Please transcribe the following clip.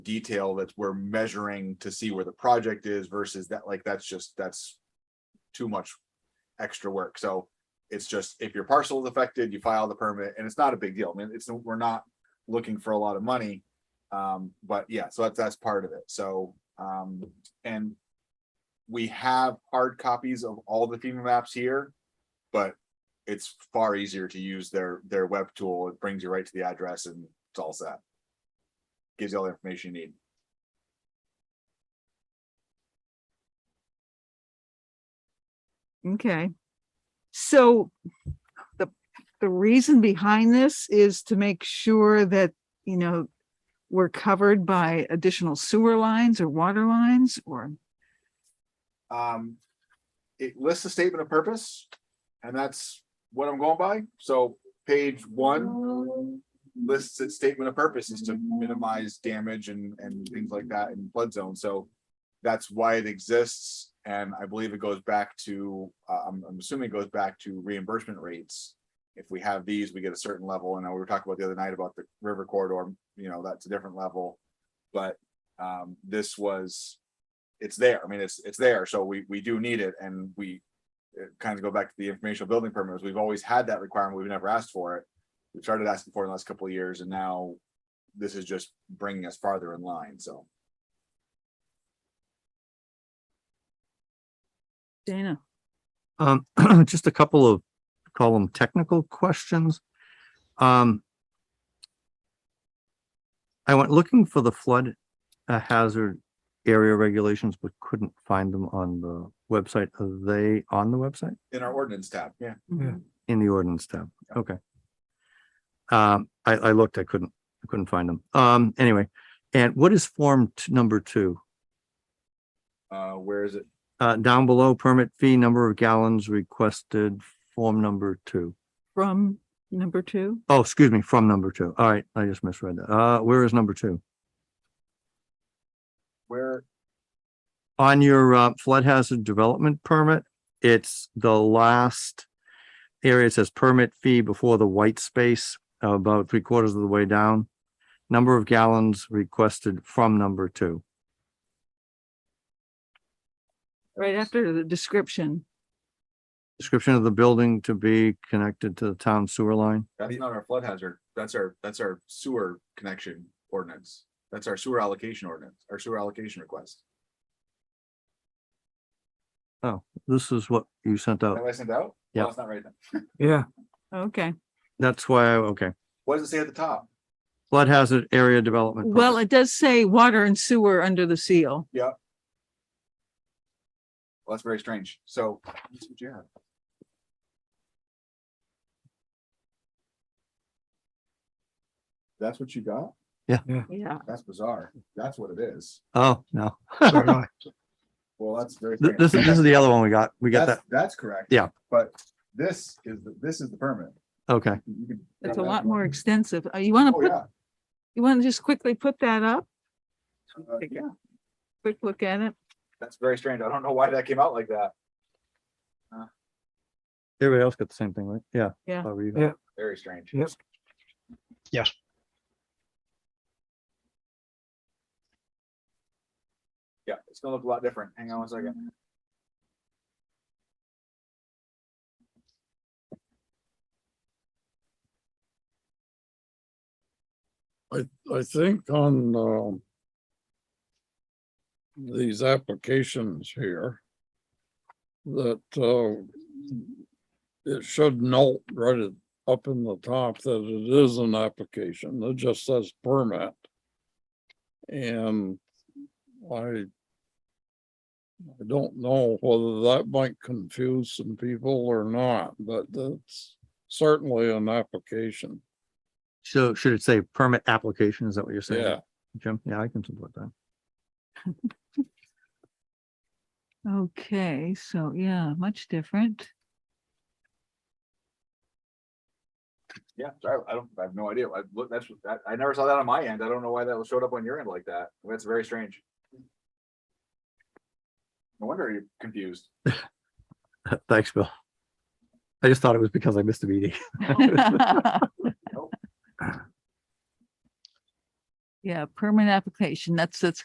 detail that we're measuring to see where the project is versus that, like, that's just, that's too much extra work. So it's just, if your parcel is affected, you file the permit and it's not a big deal. I mean, it's, we're not looking for a lot of money. Um, but yeah, so that's, that's part of it. So, um, and we have hard copies of all the FEMA maps here, but it's far easier to use their, their web tool. It brings you right to the address and it's all set. Gives you all the information you need. Okay. So the, the reason behind this is to make sure that, you know, we're covered by additional sewer lines or water lines or, Um, it lists a statement of purpose, and that's what I'm going by. So page one lists its statement of purpose is to minimize damage and, and things like that in flood zone. So that's why it exists, and I believe it goes back to, uh, I'm, I'm assuming it goes back to reimbursement rates. If we have these, we get a certain level, and I- we were talking about the other night about the river corridor, you know, that's a different level. But, um, this was it's there. I mean, it's, it's there. So we, we do need it and we kind of go back to the informational building permits. We've always had that requirement. We've never asked for it. We started asking for it in the last couple of years and now this is just bringing us farther in line. So Dana, Um, just a couple of, call them technical questions. Um. I went looking for the flood uh, hazard area regulations, but couldn't find them on the website. Are they on the website? in our ordinance tab, yeah. Mm-hmm. Yeah. In the ordinance tab, okay. Um, I, I looked, I couldn't, I couldn't find them. Um, anyway, and what is form t- number two? Uh, where is it? Uh, down below permit fee, number of gallons requested, form number two. from number two? Oh, excuse me, from number two. All right, I just misread that. Uh, where is number two? Where? On your uh, flood hazard development permit, it's the last area. It says permit fee before the white space, about three quarters of the way down. Number of gallons requested from number two. Right after the description. Description of the building to be connected to the town sewer line. That's not our flood hazard. That's our, that's our sewer connection ordinance. That's our sewer allocation ordinance, our sewer allocation request. This is what you sent Have out. I sent out? Oh. Yeah. No, It's not right then. Okay. That's why, I okay. What does it say at the top? Flood hazard area development. permit. Well, it does say water and sewer under the seal. Well, that's very strange. So. let's see what you have. That's what you got? Yeah. That's bizarre. That's what it is. Oh, no. Well, that's very. Th- strange. This is, this is the other one we got. We got that. That's, that's correct. Yeah. But this is, the- this is the permit. Okay. You can- It's a lot more extensive. Uh, You want to Oh, put, yeah. you want to just quickly put that up? Uh, Take a Yeah, quick look at it. that's very strange. I don't know why that came out like that. Everybody else got the same thing, right? Yeah. Yeah. Barbara, you- Yeah. Very strange. Yep. Yeah, it's gonna look a lot different. Hang on one second. I, I think on, um, these applications here, that, uh, it should note right at- up in the top that it is an application, it just says permit. And I I don't know whether that might confuse some people or not, but that's certainly an application. So should it say permit application? Is that what you're saying? Yeah. Jim, yeah, I can support that. Okay, so yeah, much different. Yeah, sorry, I don't, I have no idea. I look, that's, I, I never saw that on my end. I don't know why that showed up on your end like that. That's very strange. No wonder you're confused. Thanks, Bill. I just thought it was because I missed a meeting. Yeah, permanent application. That's, that's